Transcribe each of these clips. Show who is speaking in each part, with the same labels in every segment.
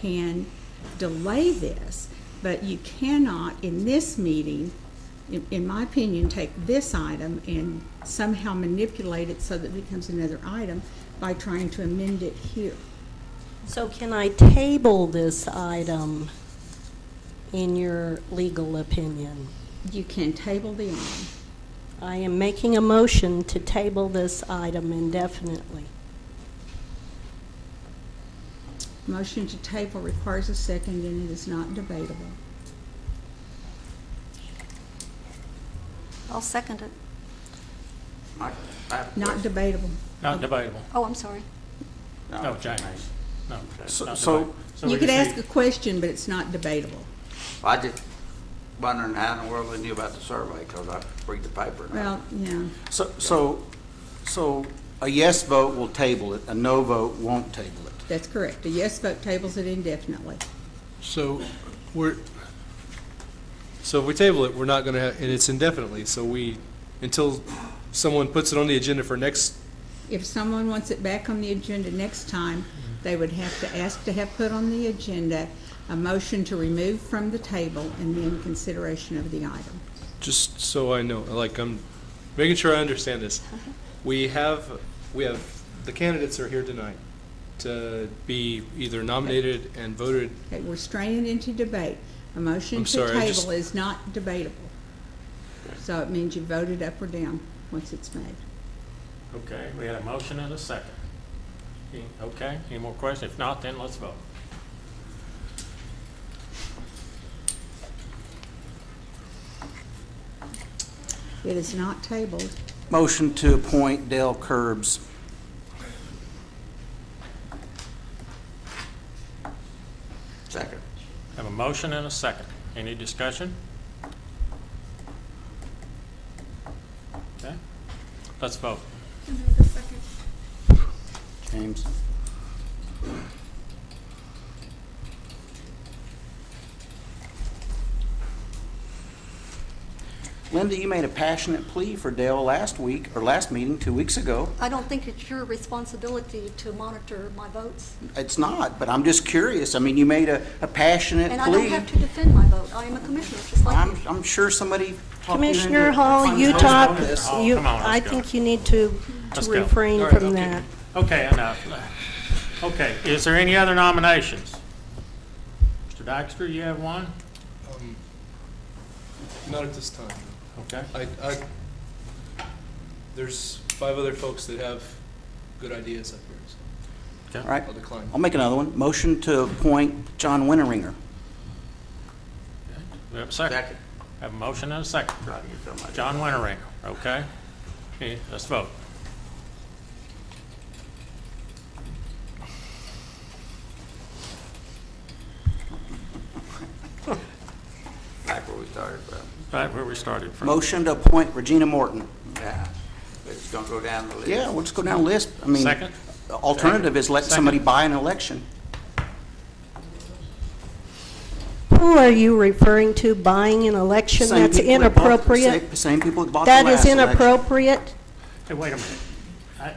Speaker 1: can delay this, but you cannot, in this meeting, in, in my opinion, take this item and somehow manipulate it so that it becomes another item by trying to amend it here.
Speaker 2: So can I table this item in your legal opinion?
Speaker 1: You can table the item.
Speaker 2: I am making a motion to table this item indefinitely.
Speaker 1: Motion to table requires a second and it is not debatable.
Speaker 3: I'll second it.
Speaker 4: I- I have a
Speaker 1: Not
Speaker 4: question.
Speaker 1: debatable.
Speaker 5: Not debatable.
Speaker 3: Oh, I'm sorry.
Speaker 5: No, James. No.
Speaker 4: So-
Speaker 5: not
Speaker 4: so-
Speaker 5: debatable. So we
Speaker 1: You could
Speaker 5: just
Speaker 1: ask
Speaker 5: need-
Speaker 1: a question, but it's not debatable.
Speaker 4: I just wondering how in the world they knew about the survey, because I read the paper. and I-
Speaker 1: Well, yeah,
Speaker 6: So, so, so a yes vote will table it, a no vote won't table it.
Speaker 1: that's correct. A yes vote tables it indefinitely.
Speaker 7: So we're, so if we table it, we're not going to have, and it's indefinitely, so we, until someone puts it on the agenda for next,
Speaker 1: If someone wants it back on the agenda next time, they would have to ask to have put on the agenda a motion to remove from the table and then consideration of the item.
Speaker 7: just so I know, like, I'm making sure I understand this. We have, we have, the candidates are here tonight to be either nominated and voted,
Speaker 1: Okay, we're straying into debate. A motion
Speaker 7: I'm
Speaker 1: to
Speaker 7: sorry, I
Speaker 1: table
Speaker 7: just-
Speaker 1: is not debatable. So it means you voted up or down once it's made.
Speaker 5: Okay, we had a motion and a second. Any- Okay, any more questions? If not, then let's vote.
Speaker 1: It is not tabled.
Speaker 6: Motion to appoint Dale Curbs.
Speaker 4: Second.
Speaker 5: Have a motion and a second. Any discussion? Okay, let's vote.
Speaker 6: James? Linda, you made a passionate plea for Dale last week, or last meeting, two weeks ago.
Speaker 3: I don't think it's your responsibility to monitor my votes.
Speaker 6: It's not, but I'm just curious. I mean, you made a, a passionate plea.
Speaker 3: And I don't have to defend my vote. I am a commissioner, just like
Speaker 6: I'm,
Speaker 3: you.
Speaker 6: I'm sure somebody. talked you into
Speaker 2: Commissioner
Speaker 6: it.
Speaker 2: Hall,
Speaker 6: I'm
Speaker 2: you
Speaker 6: opposed to
Speaker 2: talk,
Speaker 6: this.
Speaker 5: Oh,
Speaker 2: you,
Speaker 5: come on, let's
Speaker 2: I
Speaker 5: go.
Speaker 2: think you need to to
Speaker 5: Let's go. All
Speaker 2: refrain
Speaker 5: right,
Speaker 2: from
Speaker 5: okay.
Speaker 2: that.
Speaker 5: Okay, enough. Okay, is there any other nominations? Mr. Dykstra, you have one?
Speaker 7: um, not at this time.
Speaker 5: Okay.
Speaker 7: I, I, there's five other folks that have good ideas up here, so
Speaker 6: All right,
Speaker 7: I'll decline.
Speaker 6: I'll make another one. Motion to appoint John Winteringer.
Speaker 5: We have a second.
Speaker 4: Second.
Speaker 5: Have a motion and a second.
Speaker 4: I knew somebody.
Speaker 5: John Winteringer, okay? Okay, let's vote.
Speaker 4: Back where we started from.
Speaker 5: Right where we started from.
Speaker 6: Motion to appoint Regina Morton.
Speaker 4: Yeah. It's going to go down the list.
Speaker 6: Yeah, we'll just go down the list. I mean,
Speaker 5: Second?
Speaker 6: the alternative is let
Speaker 5: Second.
Speaker 6: somebody buy an election.
Speaker 2: Who are you referring to buying an election?
Speaker 6: Same
Speaker 2: That's
Speaker 6: people that bought-
Speaker 2: inappropriate.
Speaker 6: same- Same people that bought the
Speaker 2: That is
Speaker 6: last election.
Speaker 2: inappropriate.
Speaker 5: Hey, wait a minute. I-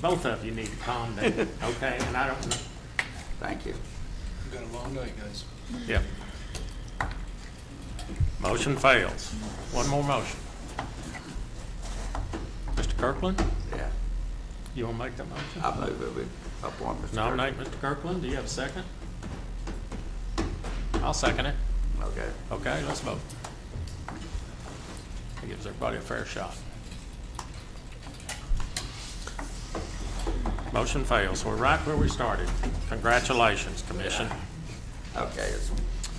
Speaker 5: Both of you need to calm down, okay? And I don't, know-
Speaker 4: Thank you.
Speaker 7: We've got a long night, guys.
Speaker 5: yeah. Motion fails. One more motion. Mr. Kirkland,
Speaker 4: Yeah.
Speaker 5: you want to make that motion?
Speaker 4: I move that we appoint Mr. Kirk.
Speaker 5: Nominate Mr. Kirkland, do you have a second? I'll second it.
Speaker 4: Okay.
Speaker 5: Okay, let's vote. That gives everybody a fair shot. Motion fails. We're right where we started. Congratulations, Commission.
Speaker 4: Okay. it's-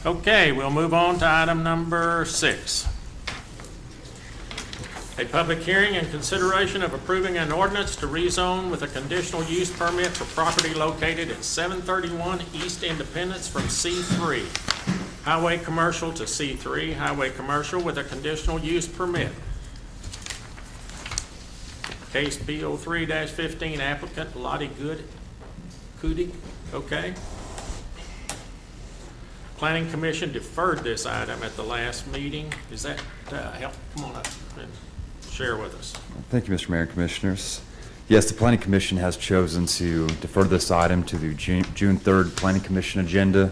Speaker 5: Okay, we'll move on to item number six. A public hearing and consideration of approving an ordinance to rezone with a conditional use permit for property located at 731 East Independence from C3 Highway Commercial to C3 Highway Commercial with a conditional use permit. Case B03-15 applicant Lottie Good, Cootie, okay? Planning Commission deferred this item at the last meeting. Is that, uh, help, come on up and share with us.
Speaker 8: Thank you, Mr. Mayor and Commissioners. Yes, the Planning Commission has chosen to defer this item to the Ju- June 3rd Planning Commission agenda.